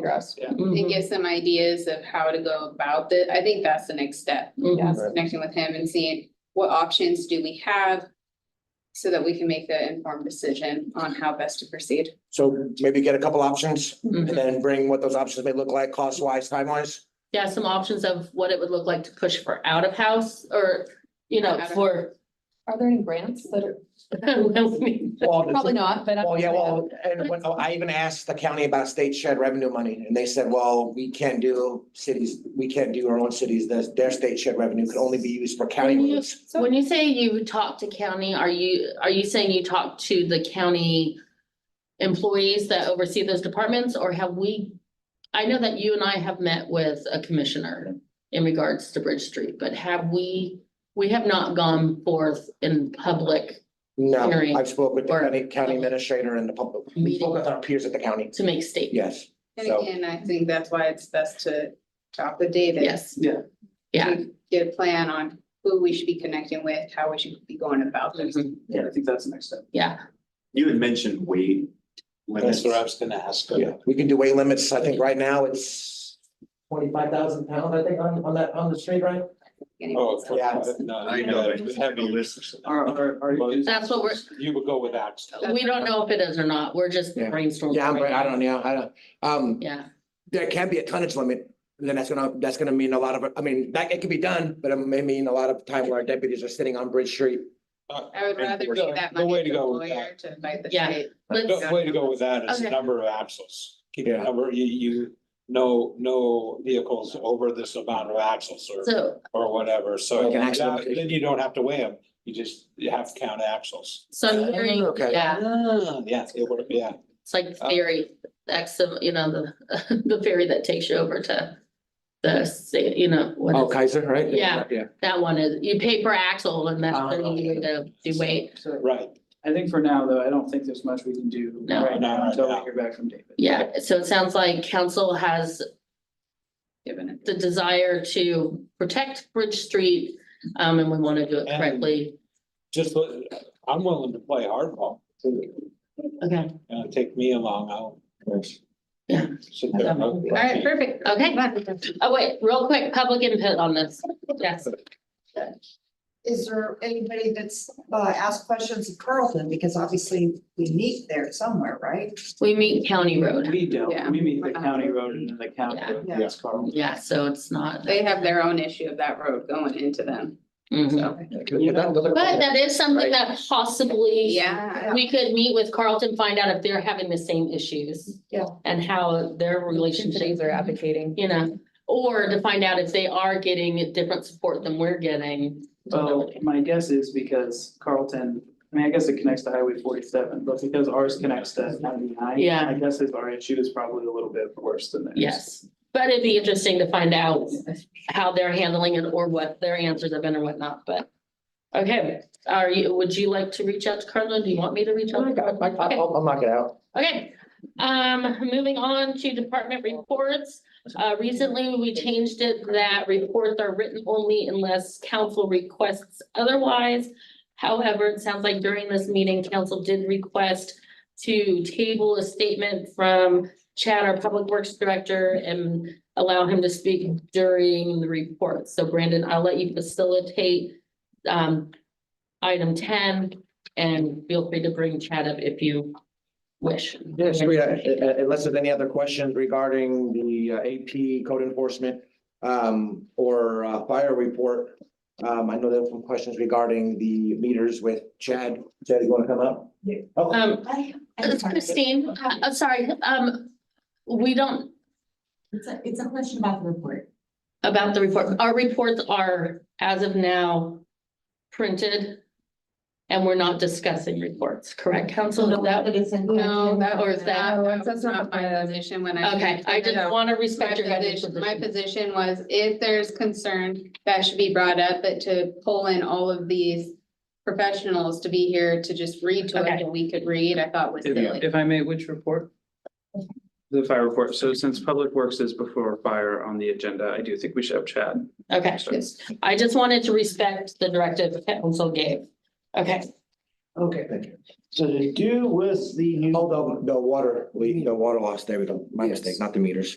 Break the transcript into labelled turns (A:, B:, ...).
A: address.
B: Mhm.
C: Mm-hmm.
D: and get some ideas of how to go about it. I think that's the next step,
B: Mhm.
D: is connecting with him and seeing what options do we have so that we can make the informed decision on how best to proceed.
E: So maybe get a couple options and
B: Mhm.
E: then bring what those options may look like, cost wise, time wise.
B: Yeah, some options of what it would look like to push for out of house or, you know,
D: Out of-
B: for.
A: Are there any grants that are, probably
E: Well,
A: not, but. I'm-
E: well, yeah, well, and when- oh, I even asked the county about state shed revenue money and they said, well, we can't do cities, we can't do our own cities. Their, their state shed revenue could only be used for county
B: When you-
E: roads.
B: When you say you talk to county, are you, are you saying you talk to the county employees that oversee those departments, or have we? I know that you and I have met with a commissioner in regards to Bridge Street, but have we, we have not gone forth in public
E: No,
B: Hearing
E: I've spoken with the
B: or-
E: county, county administrator and the public, we spoke with our peers at the county.
B: to make statements.
E: Yes,
D: And
E: So-
D: again, I think that's why it's best to talk with David.
B: Yes, yeah.
D: to Get a plan on who we should be connecting with, how we should be going about this.
C: Mm-hmm.
B: Mhm.
F: Yeah, I think that's the next step.
B: yeah,
F: You had mentioned weight
C: That's
F: limits.
C: what I was gonna ask.
E: yeah. We can do weight limits. I think right now it's twenty-five thousand pounds, I think, on, on that, on the street, right?
C: Oh,
E: Yeah.
C: no,
F: I
C: you
F: know,
C: know,
F: I just
C: it's
F: have the
C: heavy.
F: list. Are, are,
C: Well,
B: that's what we're,
C: You would go with Axel.
B: we don't know if it is or not, we're just
E: Yeah.
B: brainstorming.
E: Yeah, I'm,
B: right
E: I
B: now.
E: don't e- know, I don't, um,
B: Yeah,
E: there can be a tonnage limit, then that's gonna, that's gonna mean a lot of, I mean, that, it could be done, but it may mean a lot of time where our deputies are sitting on Bridge Street.
D: I would rather
C: No,
D: give that
C: no way
D: money
C: to
D: to a
C: go with
D: lawyer to fight the
B: Yeah.
D: state.
B: let's,
C: The way to go with that is the
B: Okay.
C: number of axles. Keep the
E: Yeah.
C: number, you, you, no, no vehicles over this amount of axles or,
B: so,
C: or whatever, so.
E: Like an axle
C: that-
E: limitation.
C: Then you don't have to weigh them, you just, you have to count axles.
B: so I'm hearing,
E: Okay.
B: yeah.
C: Ah, Yeah, it would, yeah.
B: It's like
C: Uh,
B: ferry, that's, the- you know, the, the ferry that takes you over to the, sa- you know, what
E: Oh,
B: is,
E: Kaiser, right?
B: Yeah.
E: Yeah.
B: that one is, you pay per axle and that's the
E: Oh, okay.
B: way to do weight.
C: Right,
F: I think for now, though, I don't think there's much we can do
B: No.
F: right
C: No,
F: now
C: no,
F: until we
C: no.
F: hear back from David.
B: Yeah, so it sounds like council has
D: Given it.
B: the desire to protect Bridge Street, um, and we want to do it
C: And-
B: correctly.
C: just, let- I'm willing to play hardball, too.
B: Okay,
C: you know, take me along, I'll.
B: Yeah.
C: Sit there. and I'll-
D: All right, perfect.
B: okay.
D: Fun.
B: Oh, wait, real quick, public input on this. Yes,
G: Is there anybody that's uh asked questions of Carlton, because obviously we meet there somewhere, right?
B: we meet County Road.
F: We
D: Yeah.
F: don't, we meet the county road and then the county
B: Yeah.
F: road,
G: Yeah.
F: yes, Carl.
B: Yeah, so it's not.
D: They have their own issue of that road going into them.
B: Mhm. But that is something that possibly.
D: Yeah.
B: We could meet with Carlton, find out if they're having the same issues.
G: Yeah.
B: And how their relationships
A: are
B: are,
A: advocating.
B: you know, or to find out if they are getting different support than we're getting.
F: Well, my guess is because Carlton, I mean, I guess it connects to Highway forty-seven, but because ours connects to ninety-nine.
B: Yeah.
F: I guess is our issue is probably a little bit worse than theirs.
B: Yes, but it'd be interesting to find out how they're handling it or what their answers have been or whatnot, but. Okay, are you, would you like to reach out to Carlton? Do you want me to reach out?
E: Oh
B: to Carlton? Okay.
E: I'll, I'll knock it out.
B: Okay, um, moving on to department reports. Uh, recently, we changed it that reports are written only unless council requests otherwise. However, it sounds like during this meeting, council did request to table a statement from Chad, our public works director, and allow him to speak during the report. So Brandon, I'll let you facilitate um, item ten, and feel free to bring Chad up if you wish.
E: Yes, we, uh, uh, unless there's any other questions regarding the uh, AP code enforcement um, or uh, fire report. Um, I know there were some questions regarding the meters with Chad. Chad, you wanna come up?
G: Yeah.
E: Oh,
B: Um,
G: I- I-
B: it's Christine, I- I'm sorry, um, we don't,
H: It's a, it's a question about the report.
B: about the report, our reports are as of now printed. And we're not discussing reports, correct, council, Is that,
H: It is in
D: No,
H: question.
D: that
B: Or
D: was
B: is
D: that,
B: that-
D: that was not my position when I.
B: okay, I just want to
D: My
B: respect your guys'
D: position, my
B: position.
D: position was if there's concern, that should be brought up, but to pull in all of these professionals to be here to just read to
B: Okay.
D: it and we could read, I thought was
F: If,
D: silly.
F: if I may, which report? The fire report. So since Public Works is before fire on the agenda, I do think we should have Chad.
B: Okay, I just wanted to respect the directive council gave, okay.
I: Okay,
E: Thank you.
I: so to do with the new.
E: Oh, the, the water, leak, the water loss, there we go. My
I: Yes.
E: mistake, not the meters.